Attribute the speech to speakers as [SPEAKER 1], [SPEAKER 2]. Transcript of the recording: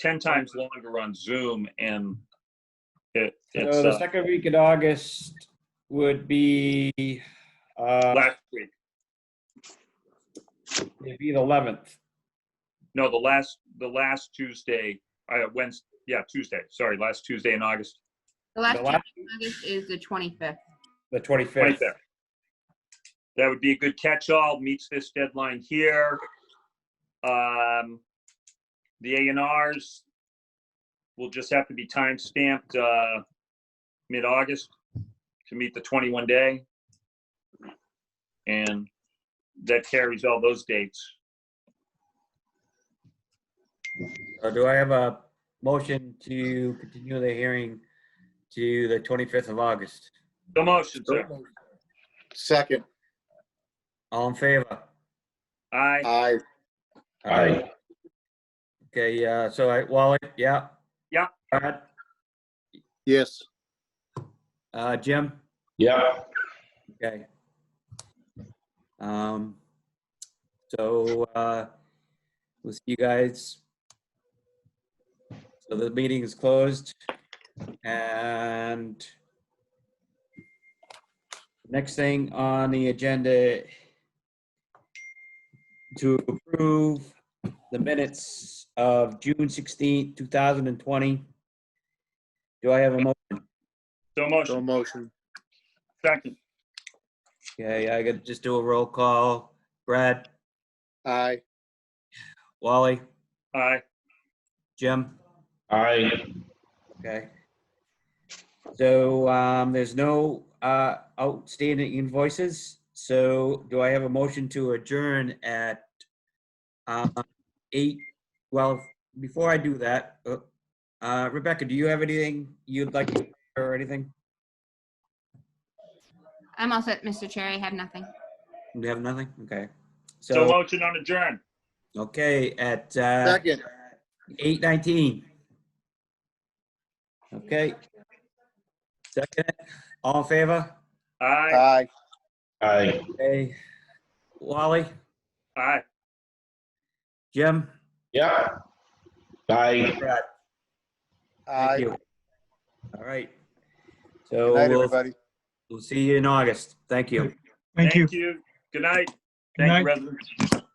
[SPEAKER 1] 10 times longer on Zoom and it, it's
[SPEAKER 2] So the
[SPEAKER 1] uh,
[SPEAKER 2] second week in August would be, uh,
[SPEAKER 1] last week.
[SPEAKER 2] it'd be the 11th.
[SPEAKER 1] No, the last, the last Tuesday, uh, Wednesday, yeah, Tuesday, sorry, last Tuesday in August.
[SPEAKER 2] The
[SPEAKER 3] The last Tuesday
[SPEAKER 2] last,
[SPEAKER 3] in August is the 25th.
[SPEAKER 2] the
[SPEAKER 1] Right
[SPEAKER 2] 25th.
[SPEAKER 1] there. That would be a good catch-all, meets this deadline here. Um, The A and Rs will just have to be timestamped uh, mid-August to meet the 21 day. And that carries all those dates.
[SPEAKER 2] So do I have a motion to continue the hearing to the 25th of August?
[SPEAKER 1] The motion, sir.
[SPEAKER 4] Second,
[SPEAKER 2] All in favor?
[SPEAKER 1] Aye.
[SPEAKER 4] aye.
[SPEAKER 2] Aye. Okay, uh, so I, Wally, yeah?
[SPEAKER 1] Yeah.
[SPEAKER 2] Brad,
[SPEAKER 4] Yes,
[SPEAKER 2] uh, Jim?
[SPEAKER 5] Yeah,
[SPEAKER 2] Okay. Um, so, uh, we'll see you guys. So the meeting is closed and next thing on the agenda to approve the minutes of June sixteenth, two thousand and twenty. Do I have a motion?
[SPEAKER 1] So
[SPEAKER 4] so
[SPEAKER 1] motion,
[SPEAKER 4] motion.
[SPEAKER 1] second.
[SPEAKER 2] Okay, I gotta just do a roll call. Brad?
[SPEAKER 4] Aye,
[SPEAKER 2] Wally,
[SPEAKER 1] Aye.
[SPEAKER 2] Jim,
[SPEAKER 5] I,
[SPEAKER 2] okay. So um, there's no uh, outstanding invoices. So do I have a motion to adjourn at uh, eight? Well, before I do that, uh, uh, Rebecca, do you have anything you'd like to or anything?
[SPEAKER 3] I'm all set, Mr. Chair. I have nothing.
[SPEAKER 2] You have nothing? Okay.
[SPEAKER 1] So
[SPEAKER 2] So,
[SPEAKER 1] motion on adjourn.
[SPEAKER 2] okay, at uh,
[SPEAKER 4] second,
[SPEAKER 2] 8:19. Okay. Second, all in favor?
[SPEAKER 1] Aye.
[SPEAKER 4] aye.
[SPEAKER 5] I.
[SPEAKER 2] Hey, Wally,
[SPEAKER 1] Aye.
[SPEAKER 2] Jim,
[SPEAKER 5] Yeah. I.
[SPEAKER 2] Brad, thank
[SPEAKER 4] Aye.
[SPEAKER 2] you. All right. So
[SPEAKER 4] Good night,
[SPEAKER 2] we'll,
[SPEAKER 4] everybody.
[SPEAKER 2] we'll see you in August. Thank you.
[SPEAKER 6] Thank you.
[SPEAKER 1] Good night. Thank you,
[SPEAKER 6] night.
[SPEAKER 1] residents.